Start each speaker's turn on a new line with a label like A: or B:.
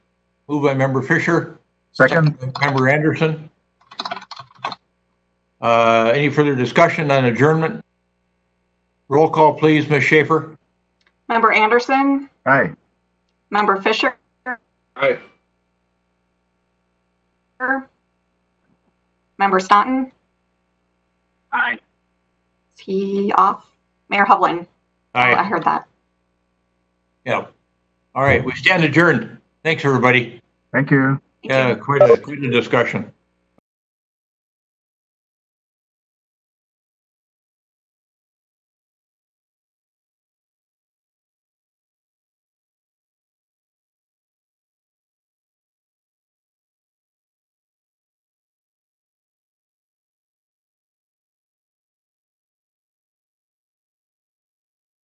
A: Moved by member Fisher,
B: Second?
A: member Anderson. Uh, Any further discussion on adjournment? Roll call, please, Ms. Schaefer.
C: Member Anderson,
B: Aye.
C: Member Fisher,
D: Aye.
C: Member Staunton,
D: Aye.
C: is he off? Mayor Hovland, Oh, I heard that.
A: Yeah. All right, we stand adjourned. Thanks, everybody.
B: Thank you.
C: Thank you.
A: Yeah, quite a, quite a discussion.